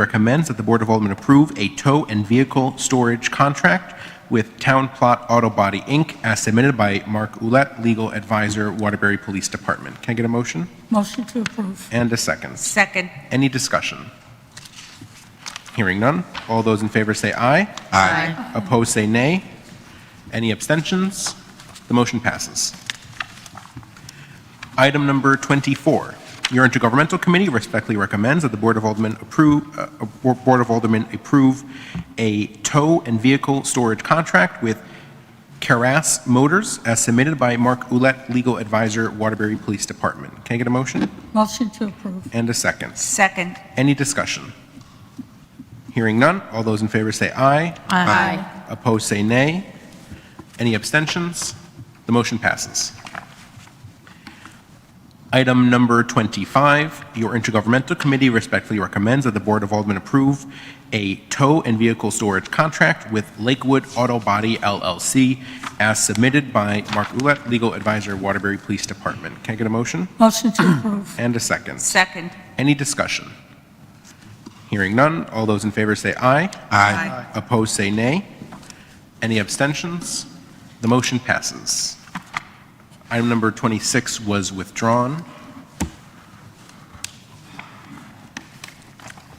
recommends that the Board of Aldermen approve a tow and vehicle storage contract with Town Plot Auto Body, Inc., as submitted by Mark Ouellette, Legal Advisor, Waterbury Police Department. Can I get a motion? Motion to approve. And a second. Second. Any discussion? Hearing none. All those in favor say aye. Aye. Opposed, say nay. Any abstentions? The motion passes. Item number 24, your intergovernmental committee respectfully recommends that the Board of Aldermen approve, uh, uh, Bo- Board of Aldermen approve a tow and vehicle storage contract with Caras Motors as submitted by Mark Ouellette, Legal Advisor, Waterbury Police Department. Can I get a motion Motion to approve. and a second? Second. Any discussion? Hearing none, all those in favor say aye. Aye. Opposed, say nay. Any abstentions? The motion passes. Item number 25, your intergovernmental committee respectfully recommends that the Board of Aldermen approve a tow and vehicle storage contract with Lakewood Auto Body LLC as submitted by Mark Ulett, Legal Advisor, Waterbury Police Department. Can I get a motion Motion to approve. and a second? Second. Any discussion? Hearing none, all those in favor say aye. Aye. Opposed, say nay. Any abstentions? The motion passes. Item number 26 was withdrawn.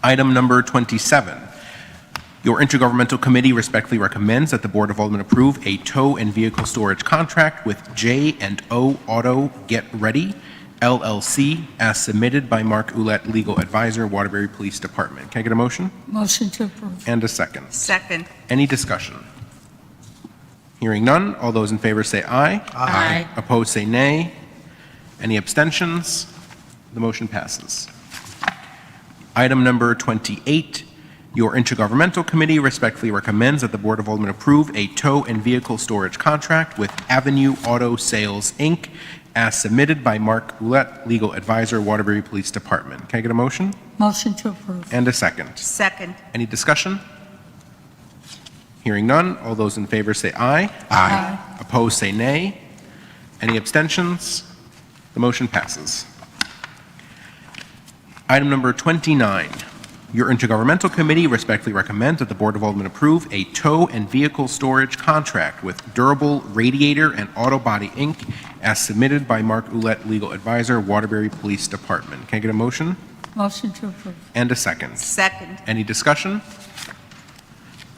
Item number 27, your intergovernmental committee respectfully recommends that the Board of Aldermen approve a tow and vehicle storage contract with J and O Auto Get Ready LLC as submitted by Mark Ulett, Legal Advisor, Waterbury Police Department. Can I get a motion Motion to approve. and a second? Second. Any discussion? Hearing none, all those in favor say aye. Aye. Opposed, say nay. Any abstentions? The motion passes. Item number 28, your intergovernmental committee respectfully recommends that the Board of Aldermen approve a tow and vehicle storage contract with Avenue Auto Sales, Inc., as submitted by Mark Roulette, Legal Advisor, Waterbury Police Department. Can I get a motion Motion to approve. and a second? Second. Any discussion? Hearing none, all those in favor say aye. Aye. Opposed, say nay. Any abstentions? The motion passes. Item number 29, your intergovernmental committee respectfully recommends that the Board of Aldermen approve a tow and vehicle storage contract with Durable Radiator and Auto Body, Inc., as submitted by Mark Ulett, Legal Advisor, Waterbury Police Department. Can I get a motion Motion to approve. and a second? Second. Any discussion?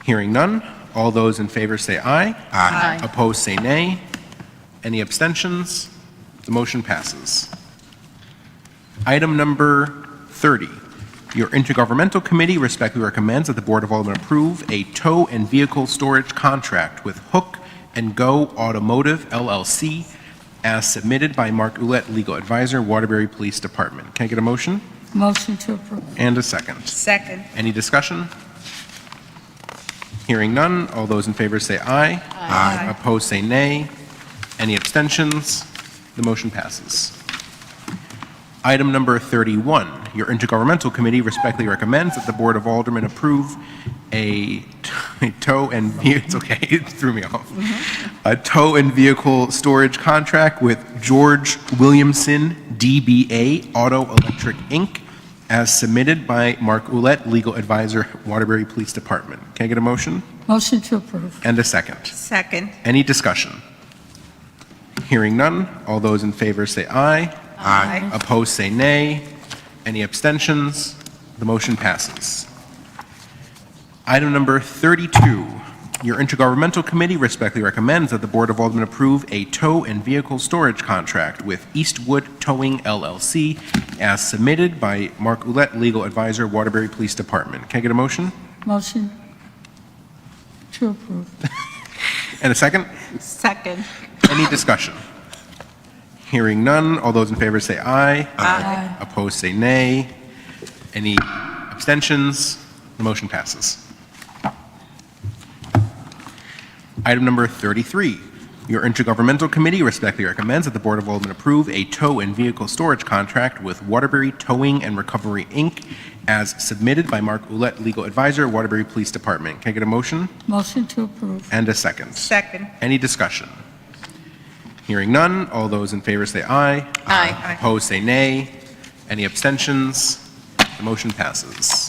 Hearing none. All those in favor say aye. Aye. Opposed, say nay. Any abstentions? The motion passes. Item number 30, your intergovernmental committee respectfully recommends that the Board of Aldermen approve a tow and vehicle storage contract with Hook and Go Automotive LLC as submitted by Mark Ulett, Legal Advisor, Waterbury Police Department. Can I get a motion Motion to approve. and a second? Second. Any discussion? Hearing none, all those in favor say aye. Aye. Opposed, say nay. Any abstentions? The motion passes. Item number 31, your intergovernmental committee respectfully recommends that the Board of Aldermen approve a a tow and, ve- it's okay, it threw me off. A tow and vehicle storage contract with George Williamson, DBA Auto Electric, Inc., as submitted by Mark Ulett, Legal Advisor, Waterbury Police Department. Can I get a motion Motion to approve. and a second? Second. Any discussion? Hearing none, all those in favor say aye. Aye. Opposed, say nay. Any abstentions? The motion passes. Item number 32, your intergovernmental committee respectfully recommends that the Board of Aldermen approve a tow and vehicle storage contract with Eastwood Towing LLC as submitted by Mark Ulett, Legal Advisor, Waterbury Police Department. Can I get a motion Motion to approve. and a second? Second. Any discussion? Hearing none, all those in favor say aye. Aye. Opposed, say nay. Any abstentions? The motion passes. Item number 33, your intergovernmental committee respectfully recommends that the Board of Aldermen approve a tow and vehicle storage contract with Waterbury Towing and Recovery, Inc., as submitted by Mark Ulett, Legal Advisor, Waterbury Police Department. Can I get a motion Motion to approve. and a second? Second. Any discussion? Hearing none, all those in favor say aye. Aye. Opposed, say nay. Any abstentions? The motion passes.